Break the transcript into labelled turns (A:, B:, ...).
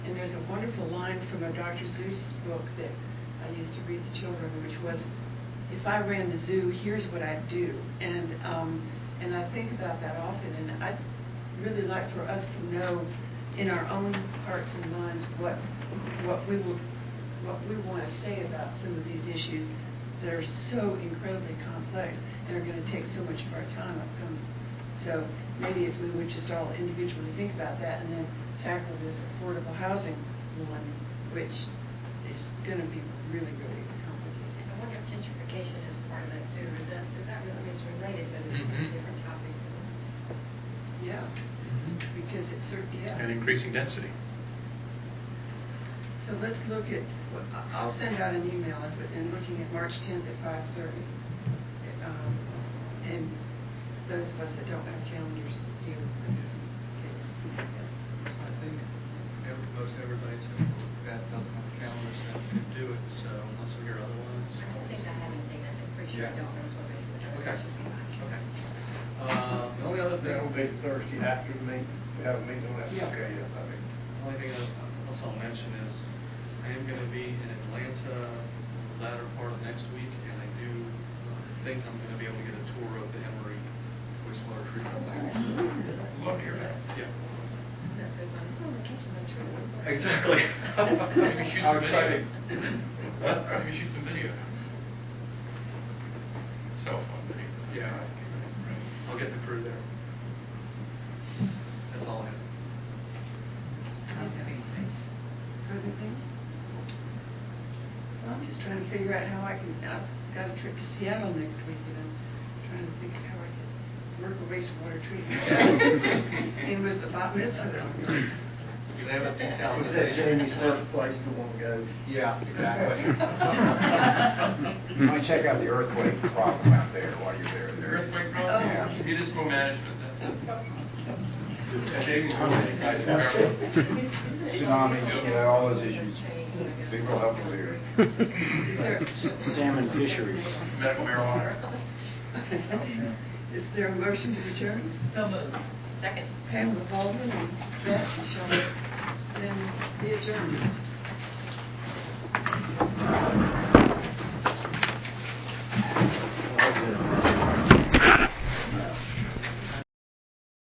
A: learned from a Dr. Seuss book that I used to read to children, which was, if I ran the zoo, here's what I'd do. And, um, and I think about that often, and I'd really like for us to know in our own hearts and minds what, what we will, what we want to say about some of these issues that are so incredibly complex and are going to take so much of our time upcoming. So maybe if we would just all individually think about that and then tackle this affordable housing one, which is going to be really, really complicated.
B: I wonder if gentrification is part of that too, or is that, is that really, I mean, it's related, but it's a
C: Mm-hmm.
D: Mhm.
B: different topic.
A: Yeah, because it's, cer- yeah.
D: And increasing density.
A: So let's look at, well, I- I'll send out an email, and put- and looking at March 10th at 5:30. Um, And those of us that don't have calendars, you.
C: I think ev- most everybody said that doesn't have a calendar, so they could do it, so unless we hear otherwise.
B: I don't think I have anything, I'm pretty sure I
C: Yeah.
B: don't, that's what I, that
C: Okay.
B: should be mine.
C: Okay. Uh, The only other thing,
E: That'll be Thursday after the meeting, we have a meeting on that.
A: Yeah.
E: Okay, yeah, I mean,
C: the only thing I- else I'll mention is, I am going to be in Atlanta the latter part of next week, and I do uh, think I'm going to be able to get a tour of the Emory wastewater treatment plant.
E: love to hear that.
C: Yeah.
B: That's good, I'm on vacation, I'm sure it's.
C: Exactly.
D: Maybe shoot some
E: I'm
D: video.
E: excited.
D: What? Maybe shoot some video. Cell phone video.
C: Yeah.
D: Right.
C: I'll get the crew there. That's all I have.
A: Other things? Well, I'm just trying to figure out how I can, I've got a trip to Seattle next week, and I'm trying to think of how I can work a wastewater treatment. And with the botanist, I don't know.
C: Do they have a big sound?
E: Was that Jamie's first place to want to go?
C: Yeah, exactly.
F: You might check out the earthquake problem out there while you're there.
D: The earthquake
A: Yeah.
C: Oh.
D: problem, municipal management, that's it. And Jamie's one of the guys who-
F: Tsunami, you know, all those issues. Be real helpful here.
A: Is there,
G: Salmon fisheries.
D: medical marijuana.
A: Is there a motion to adjourn? So moved.
B: Second.
A: Pamela Baldwin and Beth Shaw. Then the adjournment.